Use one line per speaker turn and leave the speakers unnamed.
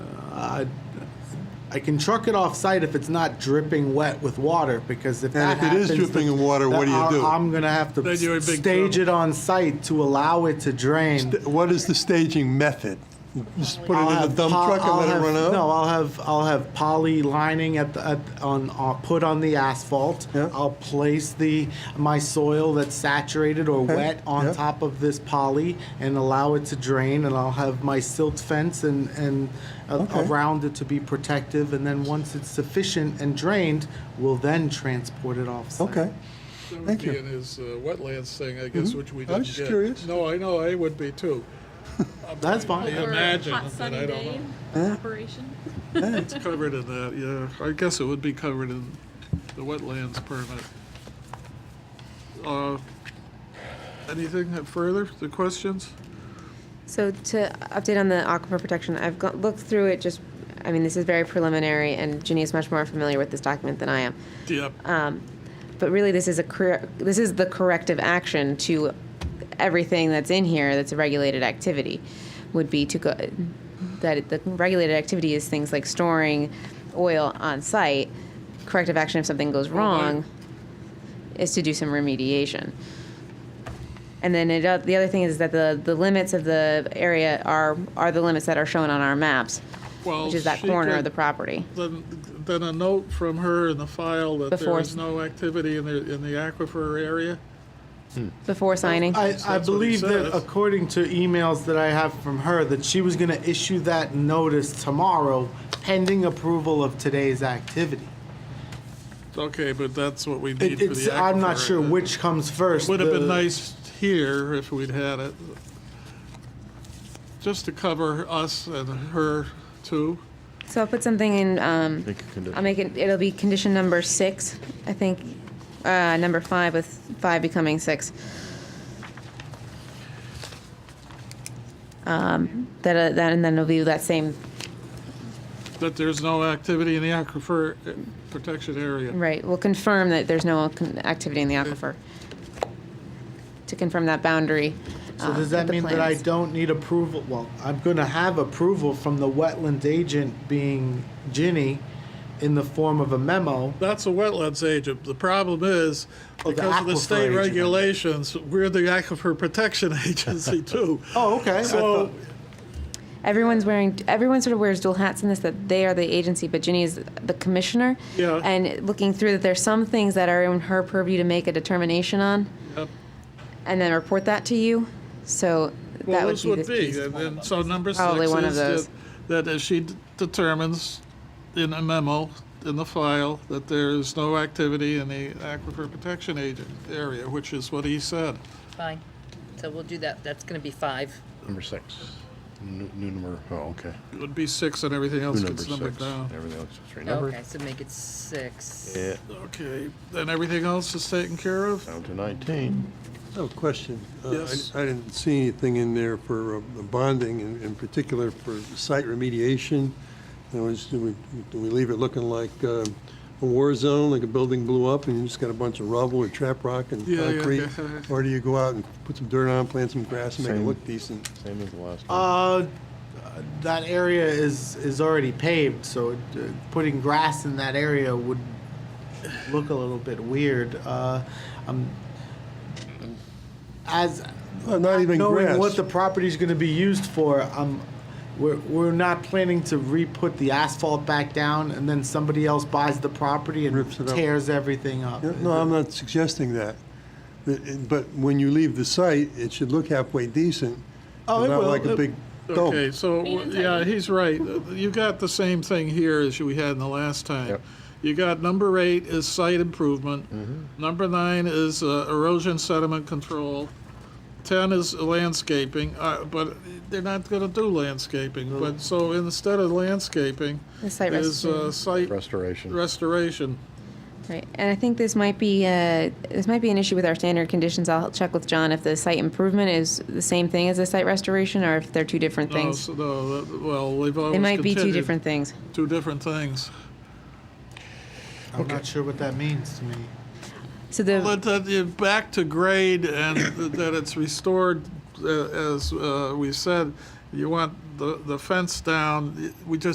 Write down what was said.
I, I can truck it off-site if it's not dripping wet with water, because if that
And if it
happens...
is dripping in water, what do you
then
do?
I- I'm gonna have to
Then you're in big
stage
trouble.
it on-site to allow it to drain.
What is the staging method? You Just put it
I'll
in a
have
dump
po-
truck and
I'll
let it
have-
run out?
No, I'll have, I'll have poly lining at the, at, on, on, put on the asphalt.
Yeah.
I'll place the, my soil that's saturated or wet
yeah.
on top of this poly and allow it to drain, and I'll have my silt fence and, and a-
Okay.
around it to be protective, and then once it's sufficient and drained, we'll then transport it off-site.
Okay.
That would
Thank
be
you. Mm-hmm.
in his uh, wetlands thing, I guess, which we
I was
didn't
just
get.
curious.
No, I know, I would be too.
That's fine.
Yeah.
Or a
Imagine,
hot
but
sunny
I don't
day
know.
operation.
It's covered in that, yeah. I guess it would be covered in the wetlands permit. Uh, Anything further, the questions?
So to update on the aquifer protection, I've go- looked through it just, I mean, this is very preliminary, and Ginny is much more familiar with this document than I am.
Yep.
But really, this is a cor- this is the corrective action to everything that's in here that's a regulated activity, would be to go that it- the regulated activity is things like storing oil on site. Corrective action if something goes wrong is to do some remediation. And then it, uh, the other thing is that the, the limits of the area are are the limits that are shown on our maps,
Well,
which is that
she
corner
could-
of the property.
Then, then a note from her in the file that there
Before-
is no activity in the, in the aquifer area?
Before signing,
I,
That's
I
what he
believe that
says.
according to emails that I have from her, that she was gonna issue that notice tomorrow pending approval of today's activity.
Okay, but that's what we need
It-
for the
It's,
aquifer.
I'm not sure
area.
which comes first.
Would have
the-
been nice here if we'd had it, just to cover us and her too.
so I'll put something in. Um,
Make a condition.
I'll make it, it'll be condition number six, I think, uh, number five with five becoming six. Um, that, uh, that, and then it'll be that same,
That there's no activity in the aquifer uh, protection area.
right, we'll confirm that there's no con- activity in the aquifer. To confirm that boundary. uh,
So
Ah,
does that mean that I don't need approval? Well, I'm gonna have approval from the wetland agent being Ginny in the form of a memo.
That's a wetlands agent. The problem is,
Oh, the
because of the
aquifer
state
agent.
regulations, we're the aquifer protection agency too.
Oh, okay. I
So,
thought-
Everyone's wearing, everyone sort of wears dual hats in this, that they are the agency, but Ginny is the commissioner.
Yeah.
And looking through that, there's some things that are in her purview to make a determination on.
Yep.
And then report that to you, so that
well,
would
this
be
would
the
be,
piece.
and then, so number six
Probably one of
is that,
those.
that if she d- determines in a memo, in the file, that there is no activity in the aquifer protection agent area, which is what he said.
Fine. So we'll do that. That's going to be five.
Number six. New, new number, oh, okay.
It would be six and everything
New
else
number
gets numbered
six.
down.
Everything else is renumbered.
Okay, so make it six.
Yeah,
Okay, then everything else is taken care of?
down to nineteen.
No question. Uh, I-
Yes.
I didn't see anything in there for uh, bonding, in in particular for site remediation. You know, is- do we, do we leave it looking like uh, a war zone, like a building blew up and you just got a bunch of rubble or trap rock and
Yeah, yeah,
concrete?
yeah.
Or do you go out and put some dirt on, plant some grass and make it
Same.
look decent?
Same as the last one.
Uh, that area is, is already paved, so uh, putting grass in that area would look a little bit weird. Uh, um, as
Uh, Not even
knowing
grass.
what the property's going to be used for, um, we're, we're not planning to re-put the asphalt back down, and then somebody else buys the property
Rips
and
it up.
tears everything up.
Yeah, No, I'm not suggesting that. But- But when you leave the site, it should look halfway decent.
Oh, it
and
will.
Not like a
It-
big dump.
Okay, so, yeah, he's right. You got the same thing here as we had in the last time.
Yep.
You got number eight is site improvement. Number nine is uh, erosion sediment control. Ten is landscaping, uh, but they're not gonna do landscaping, but, so instead of landscaping
The site
is uh,
restoration,
site
Restoration.
restoration.
right, and I think this might be, uh, this might be an issue with our standard conditions, I'll check with John if the site improvement is the same thing as the site restoration, or if they're two different
No,
things.
so, no, that- well, they've always
They might be two
continued
different things.
Two different things.
I'm not sure what that means to me.
So the.
But that you back to grade and that it's restored, uh, as uh, we said, you want the, the fence down, we just